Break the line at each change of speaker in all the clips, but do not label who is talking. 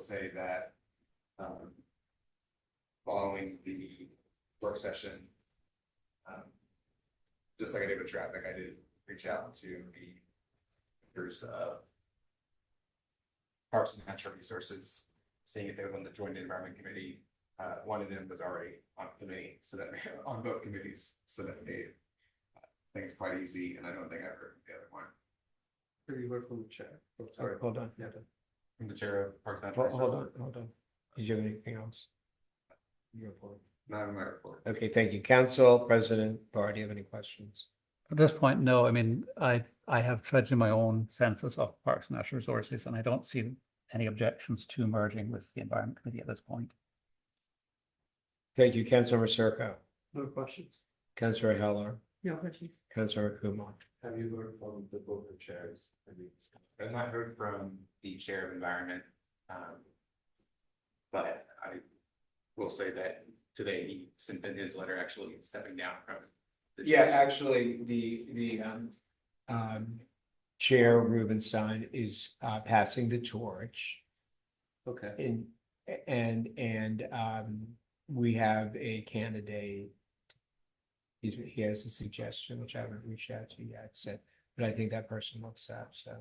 say that, um, following the work session, um, just like I did with traffic, I did reach out to the members of Parks and Natural Resources, seeing if they would want to join the Environment Committee. Uh, one of them was already on the committee, so that, on both committees, so that they I think it's quite easy, and I don't think I've heard the other one.
Pretty word from the chair. Oh,
Sorry.
Hold on, hold on,
From the chair of Parks and
Ho-
Natural.
hold on, hold on. Did you have anything else? Your report.
Not in my report.
Okay, thank you. Council President Barr, do you have any questions?
At this point, no, I mean, I, I have tried to do my own census of parks and natural resources, and I don't see any objections to merging with the environment committee at this point.
Thank you, Councilmember Circo,
No questions?
Councilor Heller,
No questions.
Councilor Kumar.
Have you heard from the board of chairs? I mean,
I've not heard from the chair of environment. um, But I will say that today he sent in his letter actually stepping down from. the
Yeah,
chair.
actually, the, the, um, um, Chair Rubenstein is, uh, passing the torch.
Okay.
And, and, and, um, we have a candidate. He's, he has a suggestion, which I haven't reached out to yet, so, but I think that person looks up, so.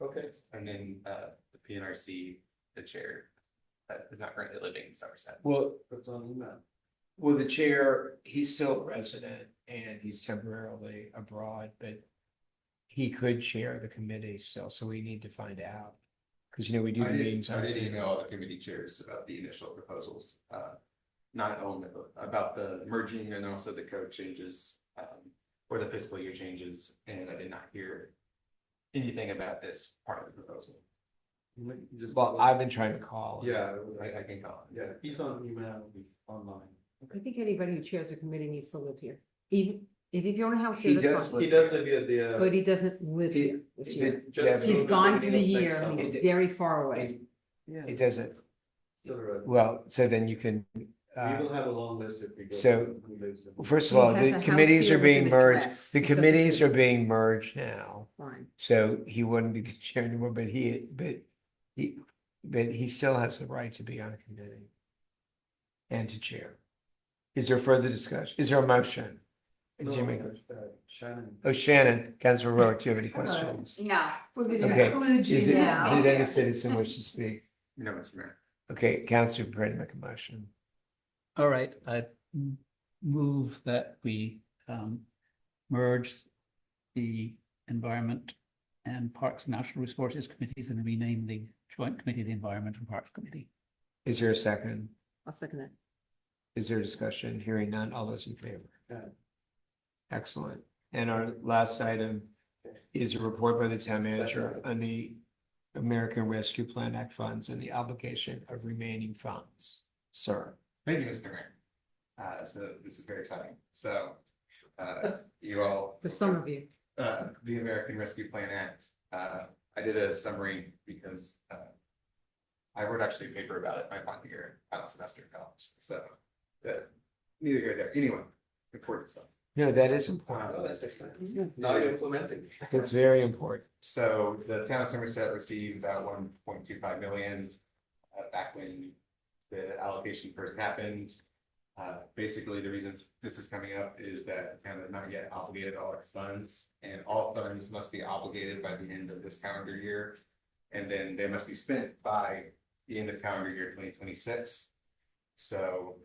Okay.
And then uh, the PNRC, the chair, that is not currently living in Somerset.
Well,
That's on email.
well, the chair, he's still a resident and he's temporarily abroad, but. He could chair the committee still, so we need to find out. Cause you know, we do
I
the meetings.
did, I
on
did
Zoom.
email all the committee chairs about the initial proposals, uh, not only about the merging and also the code changes. Um, or the fiscal year changes, and I did not hear anything about this part of the proposal.
Just.
Well, I've been trying to call.
Yeah,
I, I can call it.
yeah, he's on email, he's online.
I think anybody who chairs a committee needs to live here, even if you own a house
He
here,
does
that's fine,
live-
He does live at the, uh,
but he doesn't live
He-
here this year.
It-
Just-
yeah,
He's gone for the
Next
year,
summer.
he's very far away.
It
yeah,
it doesn't,
still around.
well, so then you can,
We
uh,
will have a long list if we go.
so-
to who lives in-
first of
He
all,
has a
the
house
committees
here
are
with
being
an
merged.
address.
The
He doesn't
committees are
live
being merged now.
Fine.
So he wouldn't be the chair anymore, but he, but he, but he still has the right to be on a committee. And to chair. Is there further discussion? Is there a motion?
No,
Jimmy,
uh, Shannon.
oh Shannon, Councilor Rowe, do you have any questions?
No,
We're
Okay.
gonna include
Is
you
it,
now.
did any citizen wish to speak?
No, Mr. Mayor.
Okay, Councilor Brady make a motion.
All right, I m- move that we um merge the Environment and Parks and Natural Resources Committees and rename the Joint Committee the Environment and Parks Committee.
Is there a second?
I'll second that.
Is there discussion? Hearing none, all those in favor?
Aye.
Excellent. And our last item is a report by the town manager
right.
on the American Rescue Plan Act funds and the obligation of remaining funds. Sir,
Thank you, Mr. Mayor. Uh, so this is very exciting. So, uh, you all.
For some of you,
uh, the American Rescue Plan Act. Uh, I did a summary because, uh, I wrote actually a paper about it my final year, final semester in college, so, uh, neither here nor there, anyway, important stuff.
no, that is important.
Oh, that's excellent. Now you're implementing.
That's very important.
So the town of Somerset received about one point two five million uh, back when the allocation first happened. Uh, basically, the reason this is coming up is that the town has not yet obligated all its funds, and all funds must be obligated by the end of this calendar year. And then they must be spent by the end of calendar year twenty twenty-six. So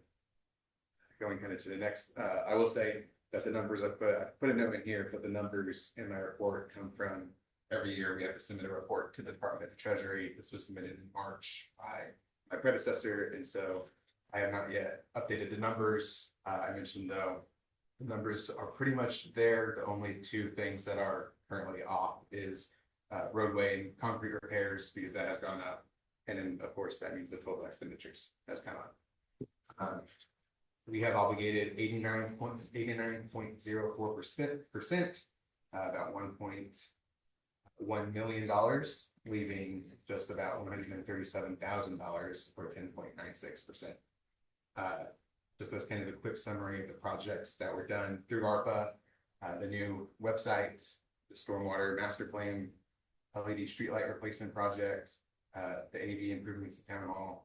going kind of to the next, uh, I will say that the numbers, I put, I put a note in here, but the numbers in my report come from every year we have to submit a report to the Department of Treasury. This was submitted in March by my predecessor, and so I have not yet updated the numbers. Uh, I mentioned though, the numbers are pretty much there. The only two things that are currently off is uh, roadway and concrete repairs because that has gone up. And then, of course, that means the total expenditures has come up. Um, we have obligated eighty-nine point, eighty-nine point zero four percent, percent, uh, about one point one million dollars, leaving just about one hundred and thirty-seven thousand dollars or ten point nine six percent. Uh, Just as kind of a quick summary of the projects that were done through ARPA, uh, the new website, the stormwater master plan, LED streetlight E replacement project, uh, the AV improvements to town hall,